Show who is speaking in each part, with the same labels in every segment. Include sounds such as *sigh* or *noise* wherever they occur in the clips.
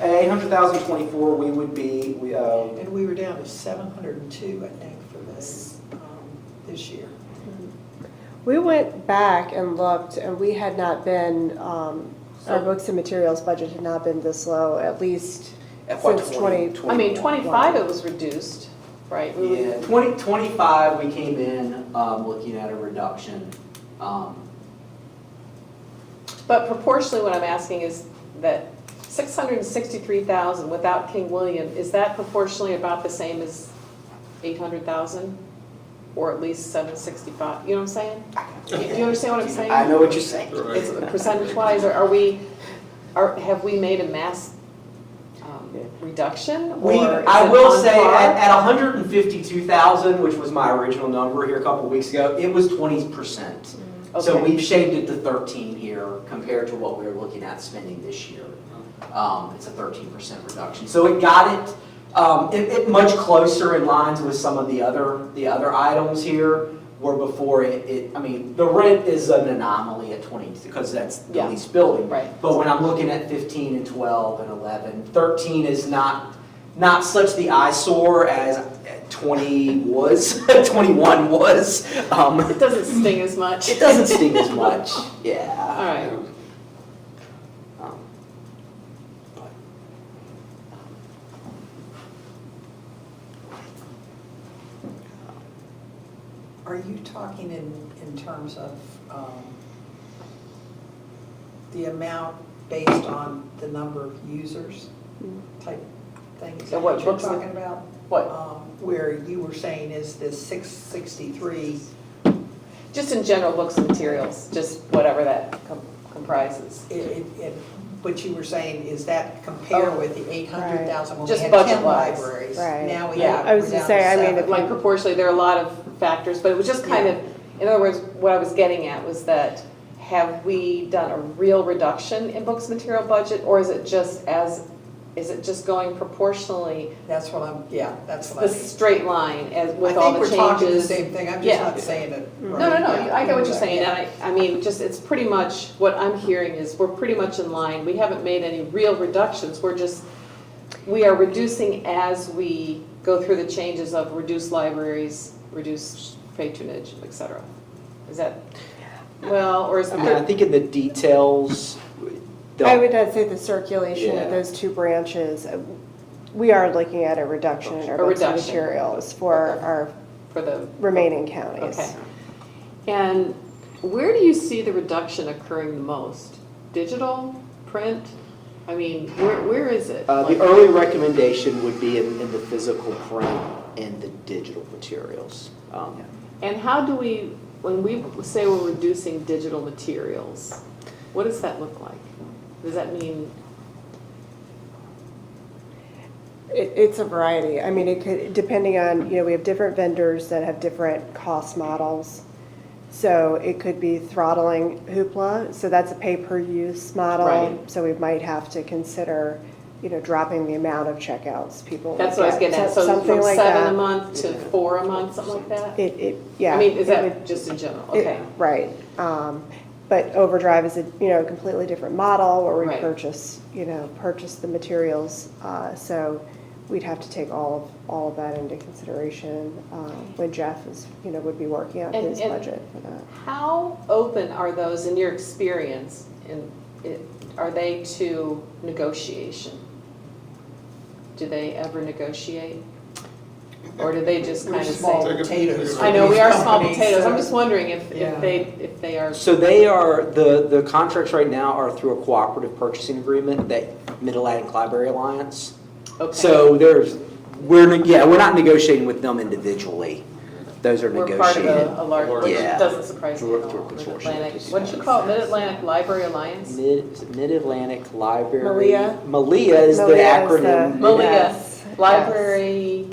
Speaker 1: eight hundred thousand twenty-four, we would be, we, uh,
Speaker 2: And we were down to seven hundred and two, I think, for this, um, this year.
Speaker 3: We went back and looked, and we had not been, um, our books and materials budget had not been this low, at least
Speaker 1: FY
Speaker 3: since twenty.
Speaker 4: I mean, uh, twenty-five it was reduced, right? We
Speaker 5: Yeah,
Speaker 4: were-
Speaker 5: twenty, twenty-five, we came in, um, looking at a reduction, um,
Speaker 4: But proportionally, what I'm asking is that six hundred and sixty-three thousand without King William, is that proportionally about the same as eight hundred thousand? Or at least seven sixty-five, you know what I'm saying? Do you understand
Speaker 1: *laughs*
Speaker 4: what I'm saying?
Speaker 1: I know what you're saying.
Speaker 4: It's percentage-wise, or are we, are, have we made a mass um, reduction?
Speaker 5: We,
Speaker 4: or is
Speaker 5: I
Speaker 4: it
Speaker 5: will
Speaker 4: on
Speaker 5: say,
Speaker 4: par?
Speaker 5: at, at hundred and fifty-two thousand, which was my original number here a couple weeks ago, it was twenty percent. So
Speaker 4: Mm-hmm. Okay.
Speaker 5: we've shaved it to thirteen here compared to what we were looking at spending this year.
Speaker 4: Mm-hmm.
Speaker 5: Um, it's a thirteen percent reduction, so it got it, um, it, it much closer in lines with some of the other, the other items here. Where before it, it, I mean, the rent is an anomaly at twenty, because that's the
Speaker 4: Yeah.
Speaker 5: least building.
Speaker 4: Right.
Speaker 5: But when I'm looking at 15 and 12 and 11, 13 is not, not such the eyesore as 20 was, *laughs* 21 was. Um,
Speaker 4: It doesn't sting as much.
Speaker 5: It doesn't sting as much,
Speaker 4: All
Speaker 5: yeah.
Speaker 4: right.
Speaker 5: Um, but,
Speaker 2: Are you talking in, in terms of um, the amount based on the number of users type thing? Is
Speaker 4: So
Speaker 2: that
Speaker 4: what
Speaker 2: what you're
Speaker 4: books are-
Speaker 2: talking about?
Speaker 4: What,
Speaker 2: Um, Where you were saying is this six sixty-three,
Speaker 4: just in general, books and materials, just whatever that com- comprises.
Speaker 2: it, it, it- what you were saying, is that compare
Speaker 4: Oh.
Speaker 2: with the eight hundred thousand when we
Speaker 4: Just
Speaker 2: had ten
Speaker 4: budget-wise.
Speaker 2: libraries?
Speaker 3: Right.
Speaker 2: Now we
Speaker 4: Yeah.
Speaker 2: have,
Speaker 3: I was
Speaker 2: we're
Speaker 3: gonna
Speaker 2: down
Speaker 3: say, I mean,
Speaker 2: seven.
Speaker 3: if
Speaker 4: Like proportionally, there are a lot of factors, but it was just kind of, in other words, what I was getting at was that have we done a real reduction in books material budget, or is it just as, is it just going proportionally,
Speaker 2: That's what I'm, yeah, that's what
Speaker 4: the
Speaker 2: I mean.
Speaker 4: straight line as with
Speaker 2: I
Speaker 4: all the
Speaker 2: think
Speaker 4: changes?
Speaker 2: we're talking the same thing, I'm just
Speaker 4: Yeah.
Speaker 2: not saying it.
Speaker 4: No, no, no, you- I get what you're saying, and I, I mean, just, it's pretty much, what I'm hearing is, we're pretty much in line, we haven't made any real reductions, we're just, we are reducing as we go through the changes of reduced libraries, reduced patronage, et cetera. Is that, well, or is
Speaker 5: I mean, I
Speaker 4: there,
Speaker 5: think in the details, the-
Speaker 3: I would not say the circulation
Speaker 5: Yeah.
Speaker 3: of those two branches, uh, we are looking at a reduction in our
Speaker 4: A
Speaker 3: books and
Speaker 4: reduction.
Speaker 3: materials for
Speaker 4: Okay.
Speaker 3: our
Speaker 4: for the,
Speaker 3: remaining counties.
Speaker 4: okay. And where do you see the reduction occurring the most? Digital, print? I mean, where, where is it?
Speaker 5: uh, the early recommendation would be in, in the physical print and the digital materials. Um,
Speaker 4: And how do we, when we say we're reducing digital materials, what does that look like? Does that mean,
Speaker 3: It, it's a variety. I mean, it could, depending on, you know, we have different vendors that have different cost models. So it could be throttling Hoopla, so that's a pay-per-use
Speaker 4: Right.
Speaker 3: model. So we might have to consider, you know, dropping the amount of checkouts people.
Speaker 4: that's what I was
Speaker 3: get,
Speaker 4: getting at, so
Speaker 3: something
Speaker 4: from
Speaker 3: like
Speaker 4: seven a
Speaker 3: that.
Speaker 4: month to four a month, something like that?
Speaker 3: It, it, yeah.
Speaker 4: I mean, is
Speaker 3: it would-
Speaker 4: that just in general,
Speaker 3: it-
Speaker 4: okay?
Speaker 3: Right. Um, But Overdrive is a, you know, completely different model where we
Speaker 4: Right.
Speaker 3: purchase, you know, purchase the materials. uh, So we'd have to take all, of all of that into consideration uh, when Jeff is, you know, would be working out
Speaker 4: And-
Speaker 3: his
Speaker 4: and-
Speaker 3: budget for that.
Speaker 4: How open are those in your experience, and it- are they to negotiation? Do they ever negotiate? Or do they just kind
Speaker 2: We're
Speaker 4: of say?
Speaker 2: small
Speaker 6: Take a-
Speaker 2: potatoes.
Speaker 4: I know, we are small
Speaker 2: These companies,
Speaker 4: potatoes,
Speaker 2: so-
Speaker 4: I'm just wondering if,
Speaker 2: Yeah.
Speaker 4: if they, if they are
Speaker 5: So they are, the, the contracts right now are through a cooperative purchasing agreement that Mid-Atlantic Library Alliance.
Speaker 4: okay.
Speaker 5: So there's, we're, neg- yeah, we're not negotiating with them individually. Those are
Speaker 4: We're part of
Speaker 5: negotiated.
Speaker 4: a, a large, which
Speaker 5: Yeah.
Speaker 4: doesn't surprise me
Speaker 6: Through-
Speaker 4: at all.
Speaker 6: through a consortium.
Speaker 4: Mid-Atlantic, what'd you call it, Mid-Atlantic Library Alliance?
Speaker 5: Mid, is it Mid-Atlantic Library.
Speaker 3: Malia?
Speaker 5: Malia is the
Speaker 3: Malia is the-
Speaker 5: acronym.
Speaker 4: Malia.
Speaker 3: Yes,
Speaker 4: Library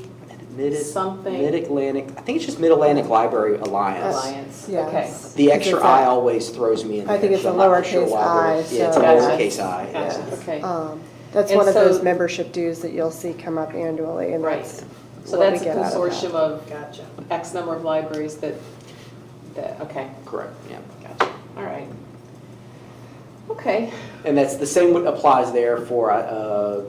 Speaker 5: Mid,
Speaker 4: something.
Speaker 5: Mid-Atlantic, I think it's just Mid-Atlantic Library Alliance.
Speaker 4: Alliance, okay.
Speaker 3: yes.
Speaker 5: The extra
Speaker 3: Because
Speaker 5: I
Speaker 3: it's a-
Speaker 5: always throws me in
Speaker 3: I think
Speaker 5: there,
Speaker 3: it's
Speaker 5: so
Speaker 3: a
Speaker 5: I'm not sure
Speaker 3: lowercase
Speaker 5: why we're-
Speaker 3: i,
Speaker 5: Yeah, it's a
Speaker 3: so-
Speaker 5: lowercase i, yeah.
Speaker 4: Gotcha, okay.
Speaker 3: um, That's
Speaker 4: And
Speaker 3: one of
Speaker 4: so-
Speaker 3: those membership dues that you'll see come up annually and
Speaker 4: Right.
Speaker 3: that's
Speaker 4: So
Speaker 3: what we
Speaker 4: that's a
Speaker 3: get out of that.
Speaker 4: consortium of
Speaker 2: Gotcha.
Speaker 4: X number of libraries that, that, okay,
Speaker 5: Correct, yeah.
Speaker 4: gotcha, all right. Okay,
Speaker 5: And that's the same what applies there for uh,